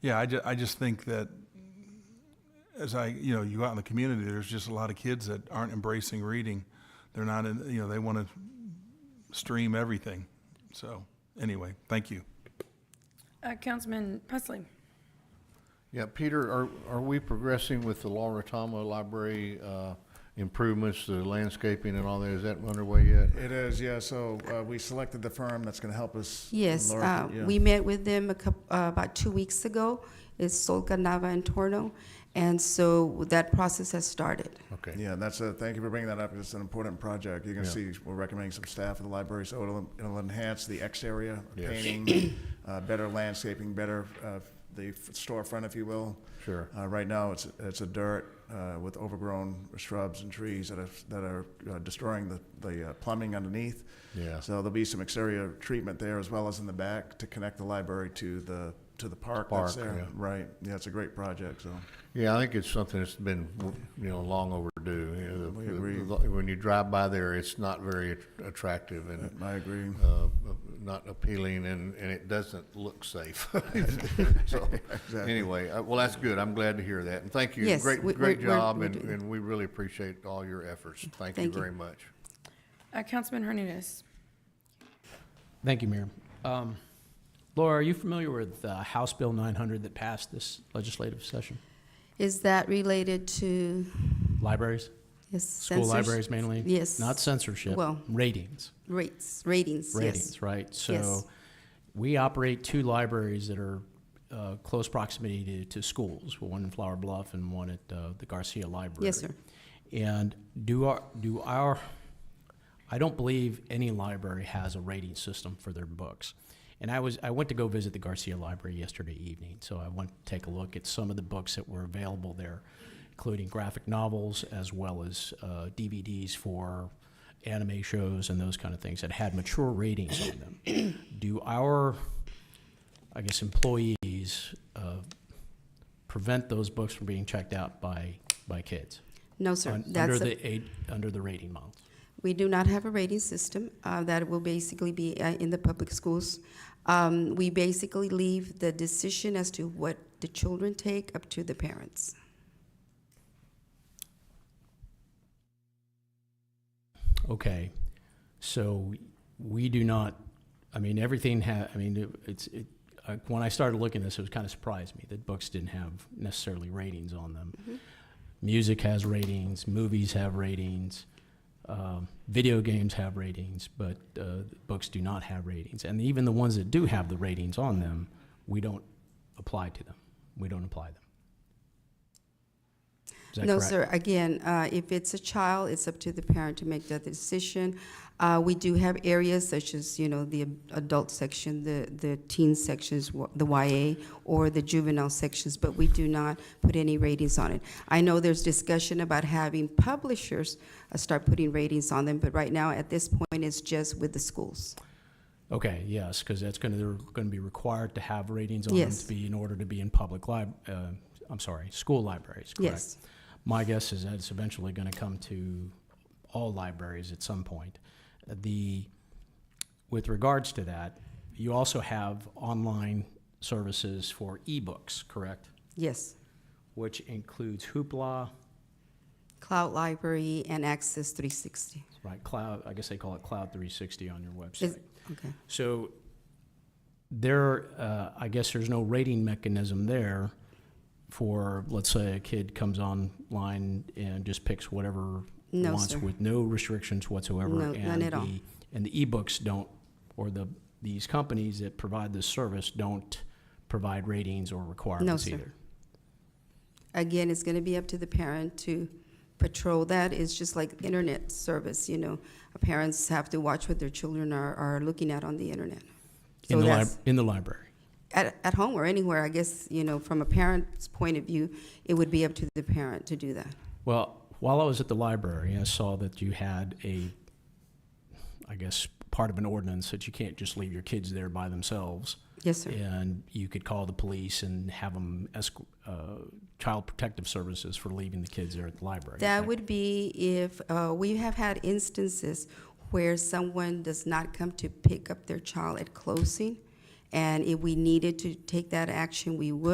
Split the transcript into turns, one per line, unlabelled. Yeah, I, ju- I just think that as I, you know, you go out in the community, there's just a lot of kids that aren't embracing reading. They're not, in, you know, they want to stream everything. So, anyway, thank you.
Uh, Councilman Pusley.
Yeah, Peter, are, are we progressing with the Laura Tomo Library uh, improvements, the landscaping and all that? Is that underway yet?
It is, yeah, so uh, we selected the firm that's going to help us.
Yes,
lower-
uh,
yeah.
we met with them a coup uh, about two weeks ago. It's Solca Nava and Torno. And so that process has started.
Okay.
Yeah, that's a, thank you for bringing that up, it's an important project. You're going to see, we're recommending some staff at the library, so it'll, it'll enhance the X area,
Yes.
painting, uh, better landscaping, better, uh, the f- storefront, if you will.
Sure.
Uh, Right now, it's, it's a dirt uh, with overgrown shrubs and trees that are, that are uh, destroying the, the uh, plumbing underneath.
Yeah.
So there'll be some exterior treatment there as well as in the back to connect the library to the, to the park that's
Park, yeah.
there. Right, yeah, it's a great project, so.
Yeah, I think it's something that's been, you know, long overdue. You know, the-
We agree.
the- When you drive by there, it's not very att- attractive and
I agree.
uh, not appealing and, and it doesn't look safe. So, anyway, uh, well, that's good. I'm glad to hear that. And thank you.
Yes,
Great,
we-
great
we're- we're-
job
we're
and,
doing-
and we really appreciate all your efforts. Thank you
Thank you.
very much.
Uh, Councilman Hernandez.
Thank you, Mayor. Um, Laura, are you familiar with uh, House Bill 900 that passed this legislative session?
Is that related to
Libraries,
yes,
school
censors-
libraries mainly?
Yes.
Not censorship,
Well-
ratings,
Rates, ratings, yes.
ratings, right?
Yes.
So we operate two libraries that are uh, close proximity to, to schools, one in Flower Bluff and one at uh, the Garcia Library.
Yes, sir.
And do our, do our, I don't believe any library has a rating system for their books. And I was, I went to go visit the Garcia Library yesterday evening, so I went to take a look at some of the books that were available there, including graphic novels as well as uh, DVDs for anime shows and those kind of things that had mature ratings on them. Do our, I guess, employees uh, prevent those books from being checked out by, by kids?
No, sir.
Un- Under
That's a-
the, aid- under the rating model.
We do not have a rating system. uh, That will basically be uh, in the public schools. Um, We basically leave the decision as to what the children take up to the parents.
Okay, so we do not, I mean, everything ha, I mean, it- it's, it, uh, when I started looking at this, it was kind of surprised me that books didn't have necessarily ratings on them.
Mm-hmm.
Music has ratings, movies have ratings, um, video games have ratings, but, uh, books do not have ratings. And even the ones that do have the ratings on them, we don't apply to them. We don't apply them. Is that
No,
correct?
sir. Again, uh, if it's a child, it's up to the parent to make that decision. Uh, We do have areas such as, you know, the adult section, the the teen sections, wh- the YA, or the juvenile sections, but we do not put any ratings on it. I know there's discussion about having publishers uh, start putting ratings on them, but right now, at this point, it's just with the schools.
Okay, yes, because that's going to, they're going to be required to have ratings on them
Yes.
to be in order to be in public lib, uh, I'm sorry, school libraries, correct?
Yes.
My guess is that it's eventually going to come to all libraries at some point. The, with regards to that, you also have online services for ebooks, correct?
Yes.
Which includes Hoopla,
Cloud Library and Access 360.
right, Cloud, I guess they call it Cloud 360 on your website.
Is- Okay.
So there, uh, I guess there's no rating mechanism there for, let's say, a kid comes online and just picks whatever
No,
wants
sir.
with no restrictions whatsoever.
No,
and
none at all.
the- And the ebooks don't, or the these companies that provide this service don't provide ratings or requirements
sir.
either.
Again, it's going to be up to the parent to patrol that. It's just like internet service, you know. Parents have to watch what their children are, are looking at on the internet.
In
So
the
that's
lib- in the library.
at, at home or anywhere, I guess, you know, from a parent's point of view, it would be up to the parent to do that.
Well, while I was at the library, I saw that you had a, I guess, part of an ordinance that you can't just leave your kids there by themselves.
Yes, sir.
And you could call the police and have them esc- uh, child protective services for leaving the kids there at the library.
That
correct?
would be if, uh, we have had instances where someone does not come to pick up their child at closing, and if we needed to take that action, we would.